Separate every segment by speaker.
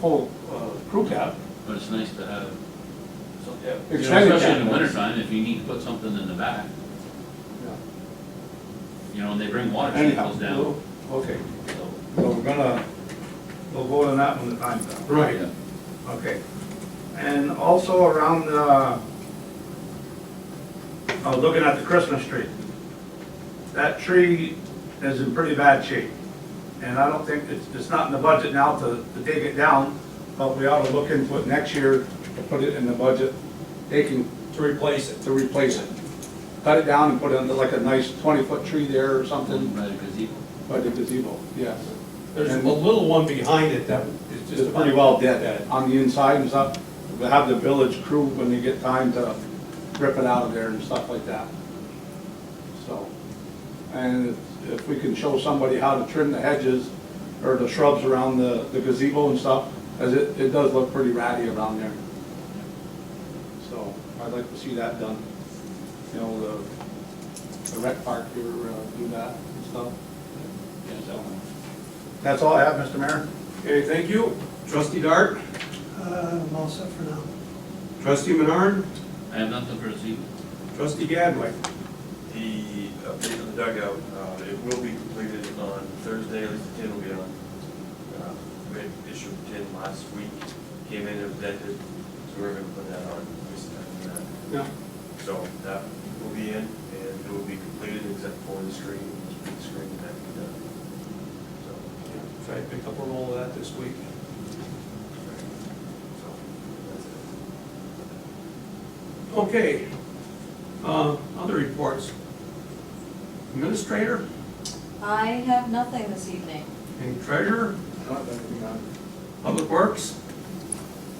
Speaker 1: full uh, crew cab.
Speaker 2: But it's nice to have, some-
Speaker 1: Yeah.
Speaker 2: you know,
Speaker 1: Extended
Speaker 2: especially in the
Speaker 1: cab.
Speaker 2: wintertime, if you need to put something in the back, you know, and they bring water
Speaker 1: Anyhow,
Speaker 2: samples down.
Speaker 1: okay.
Speaker 2: so-
Speaker 3: Well, we're gonna, we'll vote on that when the time's up.
Speaker 1: Right.
Speaker 2: Yeah.
Speaker 3: Okay. And also around, uh, I was looking at the Christmas tree. That tree is in pretty bad shape. And I don't think, it's, it's not in the budget now to, to dig it down, but we ought to look into it next year to put it in the budget, taking,
Speaker 4: to replace it.
Speaker 3: to replace it. Cut it down and put it under like a nice twenty-foot tree there or something
Speaker 2: By the gazebo.
Speaker 3: by the gazebo, yes.
Speaker 4: There's a
Speaker 3: And-
Speaker 4: little one behind it that is just.
Speaker 3: It's pretty well dead on the inside and stuff. We'll have the village crew when they get time to rip it out of there and stuff like that. So, and if- if we can show somebody how to trim the hedges or the shrubs around the the gazebo and stuff, as it, it does look pretty ratty around there. So I'd like to see that done. You know, the, the rec park here, uh, do that and stuff. So, That's all I have, Mr. Mayor.
Speaker 4: Okay, thank you. Trustee Dart,
Speaker 5: Uh, I'm all set for now.
Speaker 4: trustee Menard,
Speaker 2: I have nothing for this evening.
Speaker 4: trustee Gadway.
Speaker 6: The update on the dugout, uh, it will be completed on Thursday, at least the tin will be on. Uh, We had issued tin last week, came in and vented, so we're gonna put that on this time. uh,
Speaker 4: Yeah.
Speaker 6: So that will be in, and it will be completed except for the screen, the screen that we done. So,
Speaker 4: Try to pick up a roll of that this week.
Speaker 6: so, that's it.
Speaker 4: Okay. Uh, Other reports. Administrator
Speaker 7: I have nothing this evening.
Speaker 4: and treasurer,
Speaker 3: I don't have anything on.
Speaker 4: public works.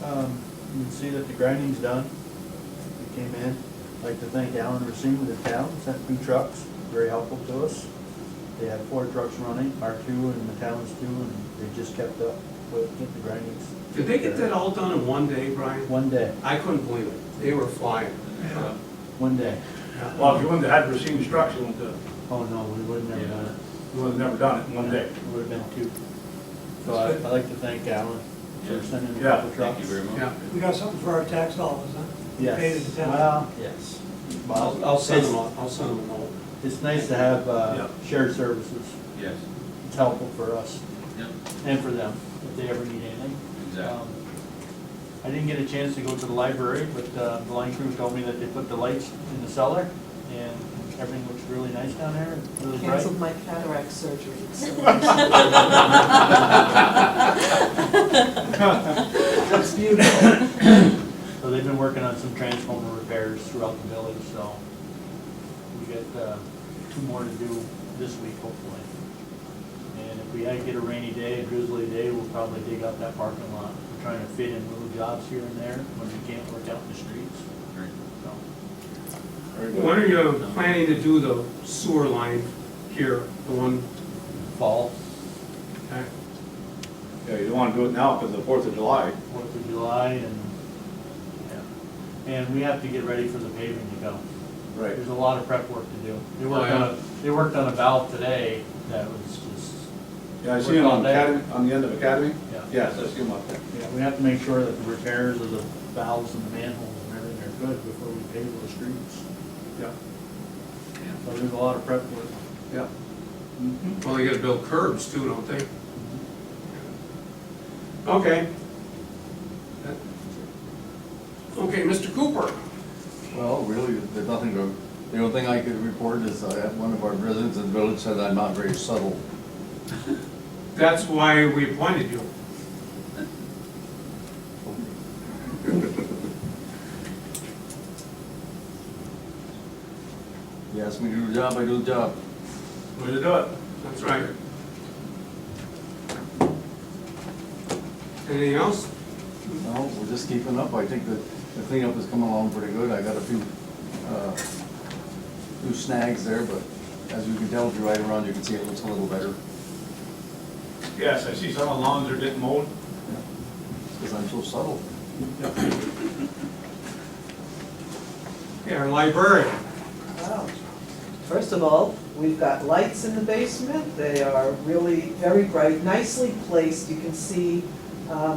Speaker 8: Um, You can see that the grinding's done. It came in. I'd like to thank Alan Racine with the town, sent two trucks, very helpful to us. They had four trucks running, our two and the town's two, and they just kept up with getting the grindings.
Speaker 4: Did they get that all done in one day, Brian?
Speaker 8: One day,
Speaker 4: I couldn't believe it. They were flying. Uh,
Speaker 8: one day.
Speaker 3: Well, if you wouldn't have had received instruction, you wouldn't have-
Speaker 8: Oh, no, we would've never done it.
Speaker 3: you would have never uh, done it in one day.
Speaker 8: It would've been two. So I- I'd like to thank Alan for sending a
Speaker 3: Yeah,
Speaker 8: couple
Speaker 2: Thank
Speaker 8: trucks.
Speaker 2: you very much.
Speaker 4: Yeah.
Speaker 5: We got something for our tax dollars, huh? We Paid it
Speaker 8: Yes,
Speaker 5: to town.
Speaker 8: well, yes.
Speaker 4: I'll I'll send them, all- I'll send them all.
Speaker 8: It's nice to have
Speaker 3: Yeah.
Speaker 8: uh, shared services.
Speaker 2: Yes,
Speaker 8: It's helpful for us.
Speaker 2: yep,
Speaker 8: and for them, if they ever need anything.
Speaker 2: exactly.
Speaker 8: Um, I didn't get a chance to go to the library, but uh, the line crew told me that they put the lights in the cellar, and everything looks really nice down there, really bright.
Speaker 9: Canceled my cataract surgery. so-
Speaker 5: That's beautiful.
Speaker 8: So they've been working on some transformer repairs throughout the village, so we got uh, two more to do this week, hopefully. And if we get a rainy day, a drizzly day, we'll probably dig up that parking lot. We're trying to fit in little jobs here and there when we can't work out in the streets,
Speaker 2: Great.
Speaker 8: so.
Speaker 4: When are you planning to do the sewer line here, the one,
Speaker 8: Fall,
Speaker 4: okay?
Speaker 3: Yeah, you don't want to do it now because of the Fourth of July.
Speaker 8: Fourth of July and, yeah. And we have to get ready for the paving to go.
Speaker 3: Right.
Speaker 8: There's a lot of prep work to do. They
Speaker 2: Oh,
Speaker 8: worked on,
Speaker 2: yeah.
Speaker 8: a they worked on a valve today that was just,
Speaker 3: Yeah, I see it on Academy, on the end of Academy.
Speaker 8: Yeah.
Speaker 3: Yes, I see them up there.
Speaker 8: yeah, we have to make sure that the repairs of the valves and the manholes and everything are good before we pave those streets.
Speaker 3: Yeah,
Speaker 8: So there's a lot of prep work.
Speaker 3: yeah.
Speaker 4: Well, they gotta build curbs too, don't they?
Speaker 3: Mm-hmm.
Speaker 4: Okay. Okay, Mr. Cooper,
Speaker 10: Well, really, there's nothing to, the only thing I could report is that one of our residents in the village said I'm not very subtle.
Speaker 4: that's why we appointed you.
Speaker 10: He asked me to do the job, I do the job.
Speaker 3: Way to do it.
Speaker 4: That's right. Anything else?
Speaker 10: No, we're just keeping up. I think that the cleanup is coming along pretty good. I got a few, uh, few snags there, but as you can tell, if you ride around, you can see it looks a little better.
Speaker 3: Yes, I see some of the lawns are getting mowed.
Speaker 10: Because I'm so subtle.
Speaker 4: Yeah, our librarian.
Speaker 9: Wow. First of all, we've got lights in the basement, they are really very bright, nicely placed, you can see, um,